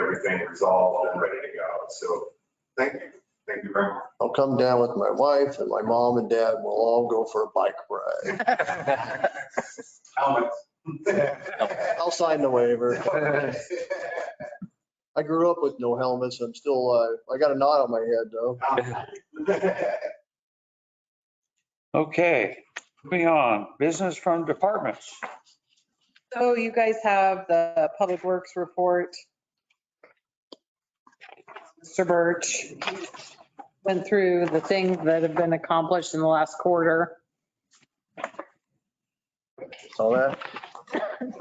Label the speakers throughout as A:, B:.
A: everything resolved and ready to go. So thank you. Thank you very much.
B: I'll come down with my wife and my mom and dad. We'll all go for a bike ride.
A: Helmets.
B: I'll sign the waiver. I grew up with no helmets. I'm still alive. I got a knot on my head though.
C: Okay, moving on, business from departments.
D: So you guys have the Public Works report. Mr. Birch went through the things that have been accomplished in the last quarter.
B: Saw that?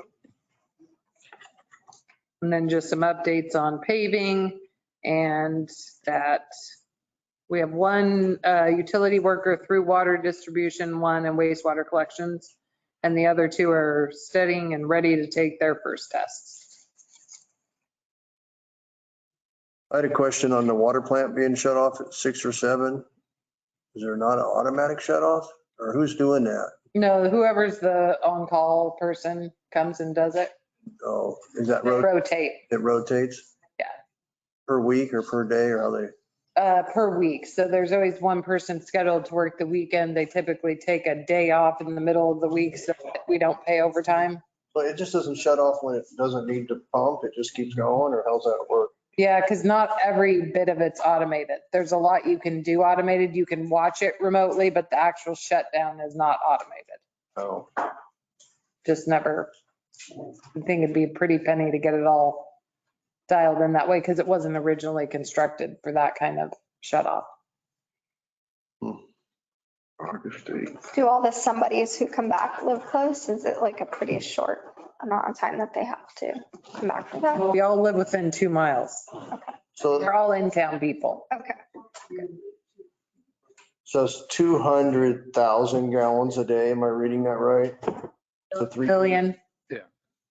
D: And then just some updates on paving and that we have one uh, utility worker through water distribution, one and wastewater collections. And the other two are studying and ready to take their first tests.
B: I had a question on the water plant being shut off at six or seven. Is there not an automatic shut off or who's doing that?
D: You know, whoever's the on-call person comes and does it,
B: Oh, is that
D: They
B: road,
D: rotate.
B: it rotates?
D: Yeah.
B: Per week or per day or how they,
D: uh, per week. So there's always one person scheduled to work the weekend. They typically take a day off in the middle of the week so that we don't pay overtime.
B: but it just doesn't shut off when it doesn't need to pump. It just keeps going or how's that work?
D: Yeah, because not every bit of it's automated. There's a lot you can do automated. You can watch it remotely, but the actual shutdown is not automated.
B: Oh,
D: Just never, I think it'd be a pretty penny to get it all dialed in that way because it wasn't originally constructed for that kind of shut off.
B: August
E: Do all the somebodies who come back live close? Is it like a pretty short amount of time that they have to come back for that?
D: We all live within two miles.
B: So
D: They're all in town people.
E: Okay.
B: So it's 200,000 gallons a day. Am I reading that right? So three-
D: Billion.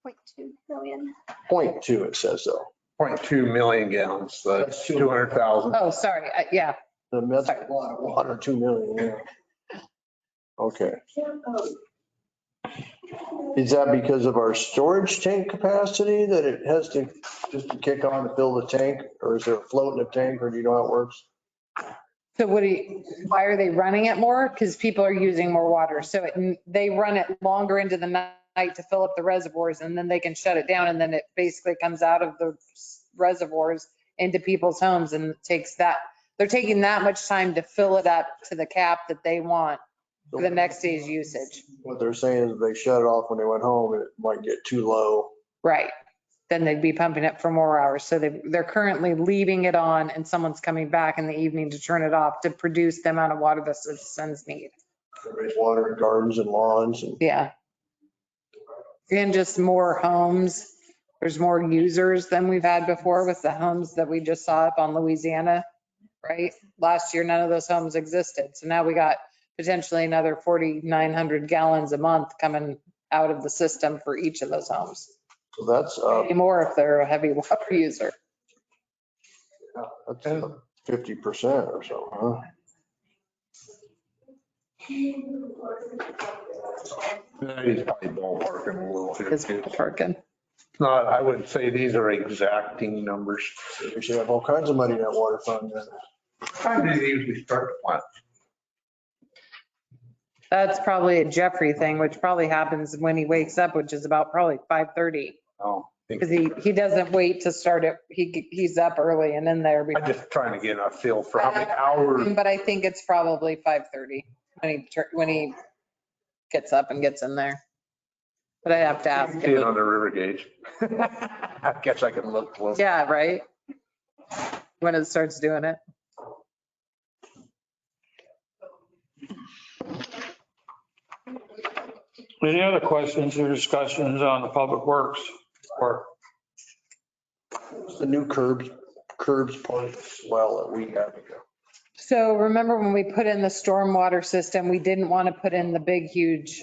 E: Point two million.
B: Point two, it says though.
F: 0.2 million gallons, so that's 200,000.
D: Oh, sorry. Uh, Yeah,
B: The that's a lot of water, 2 million. yeah. Okay. Is that because of our storage tank capacity that it has to just to kick on to fill the tank? Or is there a float in the tank or do you know how it works?
D: So what do you, why are they running it more? Because people are using more water. So it, they run it longer into the night to fill up the reservoirs and then they can shut it down. And then it basically comes out of the reservoirs into people's homes and takes that, they're taking that much time to fill it up to the cap that they want for the next day's usage.
B: What they're saying is they shut it off when they went home and it might get too low.
D: Right. Then they'd be pumping it for more hours. So they, they're currently leaving it on and someone's coming back in the evening to turn it off to produce the amount of water the citizens need.
B: Raise water in gardens and lawns and
D: Yeah. And just more homes. There's more users than we've had before with the homes that we just saw up on Louisiana, right? Last year, none of those homes existed. So now we got potentially another 4,900 gallons a month coming out of the system for each of those homes.
B: so that's up.
D: Maybe More if they're a heavy water user.
B: That's fifty percent or so, huh?
F: He's probably ballparking a little here.
D: It's
F: too.
D: parking.
F: It's Not, I would say these are exacting numbers.
B: We should have all kinds of money in that water fund. then.
F: Time do they usually start the plant?
D: That's probably a Jeffrey thing, which probably happens when he wakes up, which is about probably 5:30.
F: Oh, I
D: Because
F: think-
D: he, he doesn't wait to start it. He, he's up early and in there.
F: I'm just trying to get a feel for how many hours.
D: But I think it's probably 5:30 when he, tur- when he gets up and gets in there. But I have to ask
F: See it
D: him.
F: on the river gauge. I guess I can look close.
D: Yeah, right? When it starts doing it.
C: Any other questions or discussions on the public works or
B: It's The new curbs, curbs part as well that we have.
D: So remember when we put in the stormwater system, we didn't want to put in the big, huge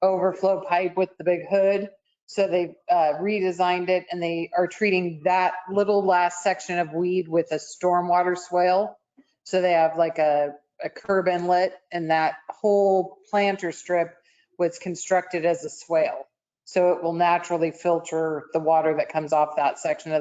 D: overflow pipe with the big hood. So they uh, redesigned it and they are treating that little last section of weed with a stormwater swale. So they have like a, a curb inlet and that whole planter strip was constructed as a swale. So it will naturally filter the water that comes off that section of